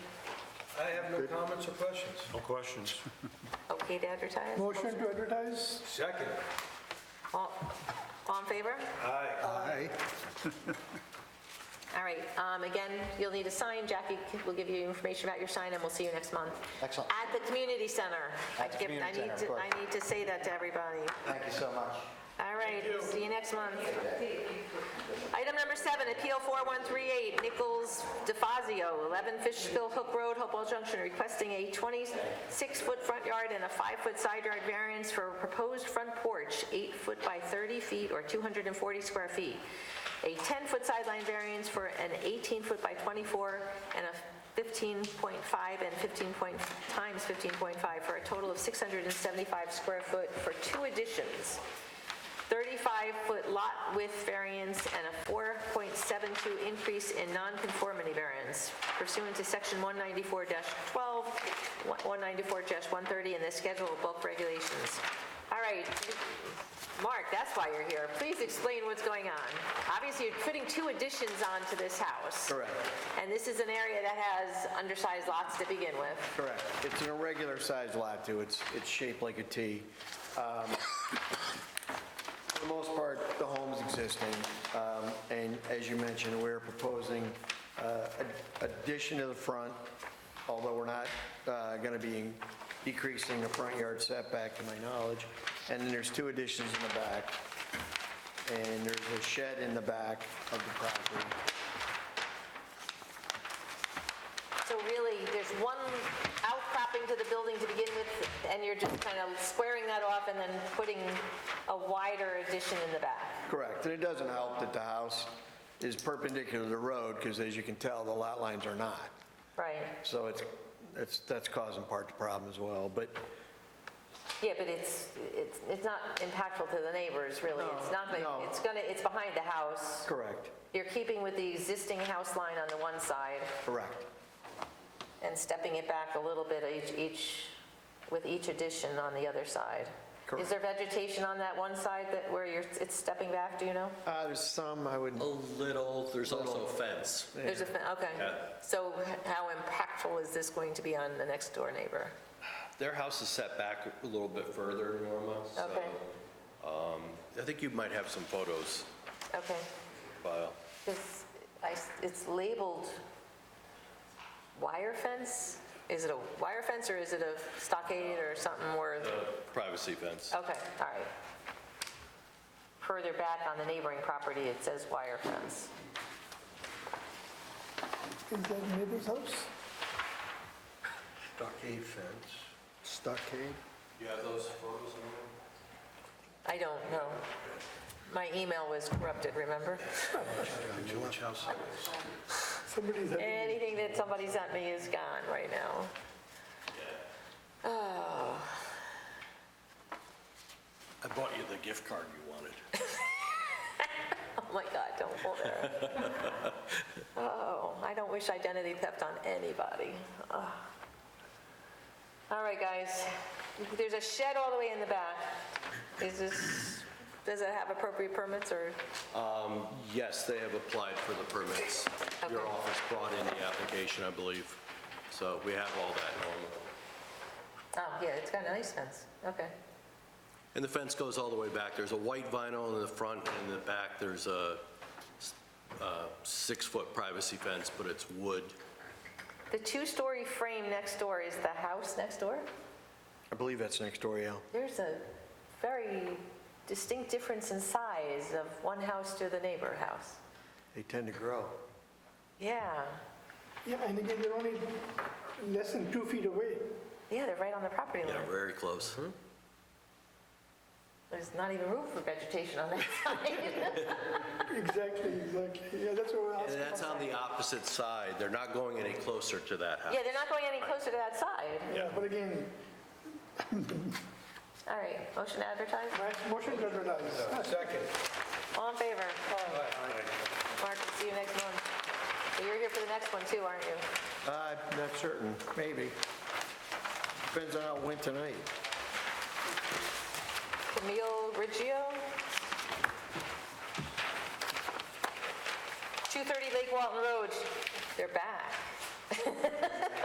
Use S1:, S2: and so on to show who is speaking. S1: have no comments or questions.
S2: No questions.
S3: Okay to advertise?
S4: Motion to advertise?
S1: Second.
S3: All all in favor?
S1: Aye.
S4: Aye.
S3: All right, um, again, you'll need a sign. Jackie will give you information about your sign, and we'll see you next month.
S5: Excellent.
S3: At the community center. I
S5: At the
S3: give- I
S5: community
S3: need
S5: center, of
S3: to-
S5: course.
S3: I need to say that to everybody.
S5: Thank you so much.
S3: All right, see you next month. Item number seven, Appeal 4138, Nichols DeFazio, 11 Fishkill Hook Road, Hopewell Junction, requesting a 26-foot front yard and a 5-foot side yard variance for a proposed front porch, 8 foot by 30 feet or 240 square feet, a 10-foot sideline variance for an 18-foot by 24, and a 15.5 and 15 point, times 15.5, for a total of 675 square foot for two additions. 35-foot lot width variance and a 4.72 increase in nonconformity variance pursuant to Section 194-12, 194-130, and the Schedule of Bulk Regulations. All right, Mark, that's why you're here. Please explain what's going on. Obviously, you're putting two additions onto this house.
S5: Correct.
S3: And this is an area that has undersized lots to begin with.
S5: Correct. It's an irregular sized lot, too. It's, it's shaped like a T. Um, For the most part, the home's existing, Um, and as you mentioned, we're proposing uh, ad- addition to the front, although we're not going to be decreasing the front yard setback, to my knowledge. And then there's two additions in the back, and there's a shed in the back of the property.
S3: So really, there's one outcropping to the building to begin with, and you're just kind of squaring that off and then putting a wider addition in the back.
S5: Correct, and it doesn't help that the house is perpendicular to the road, because as you can tell, the lot lines are not.
S3: Right.
S5: So it's, it's, that's causing part the problem as well, but
S3: Yeah, but it's, it's, it's not impactful to the neighbors, really. It's not, gonna-
S5: no.
S3: it's gonna, it's behind the house.
S5: correct,
S3: You're keeping with the existing house line on the one side
S5: correct,
S3: and stepping it back a little bit each, each, with each addition on the other side. Is
S5: Correct.
S3: there vegetation on that one side that, where you're, it's stepping back, do you know?
S5: Uh, there's some, I would,
S6: A little, there's also a fence.
S3: There's a, fe- okay. So h- how impactful is this going to be on the next door neighbor?
S6: Their house is set back a little bit further, Norma, so. um,
S3: Okay.
S6: I think you might have some photos,
S3: Okay.
S6: Kyle.
S3: This, I s- it's labeled wire fence? Is it a wire fence or is it a stockade or something more?
S6: privacy fence.
S3: Okay, all right. Further back on the neighboring property, it says wire fence.
S4: Is that neighbor's house?
S1: Stockade fence.
S5: stockade?
S6: You have those photos, Norma?
S3: I don't know. My email was corrupted, remember?
S1: George House.
S4: Somebody's having,
S3: Anything that somebody sent me is gone right now.
S6: I bought you the gift card you wanted.
S3: Oh my God, don't pull there. Oh, I don't wish identity theft on anybody. Ugh. All right, guys, there's a shed all the way in the back. Is this, does it have appropriate permits or,
S6: Um, Yes, they have applied for the permits. Your
S3: Okay.
S6: office brought in the application, I believe. So we have all that, Norma.
S3: oh, yeah, it's got a nice fence, okay.
S6: And the fence goes all the way back. There's a white vinyl in the front and in the back, there's a s- uh, six-foot privacy fence, but it's wood.
S3: The two-story frame next door is the house next door?
S5: I believe that's next door, yeah.
S3: There's a very distinct difference in size of one house to the neighbor house.
S5: They tend to grow.
S3: Yeah,
S4: yeah, and again, they're only less than two feet away.
S3: yeah, they're right on the property line.
S6: Yeah, very close.
S3: Mm-hmm. There's not even room for vegetation on that side.
S4: Exactly, exactly. Yeah, that's what we're
S6: And
S4: asking.
S6: that's on the opposite side. They're not going any closer to that house.
S3: Yeah, they're not going any closer to that side.
S4: Yeah, But again,
S3: All right, motion to advertise.
S4: nice motion to advertise.
S1: Second.
S3: All in favor?
S1: Aye.
S3: Mark, we'll see you next month. But You're here for the next one too, aren't you?
S5: Uh, not certain, maybe. Depends on how it went tonight.
S3: Camille Riggio? 230 Lake Walton Road, they're back.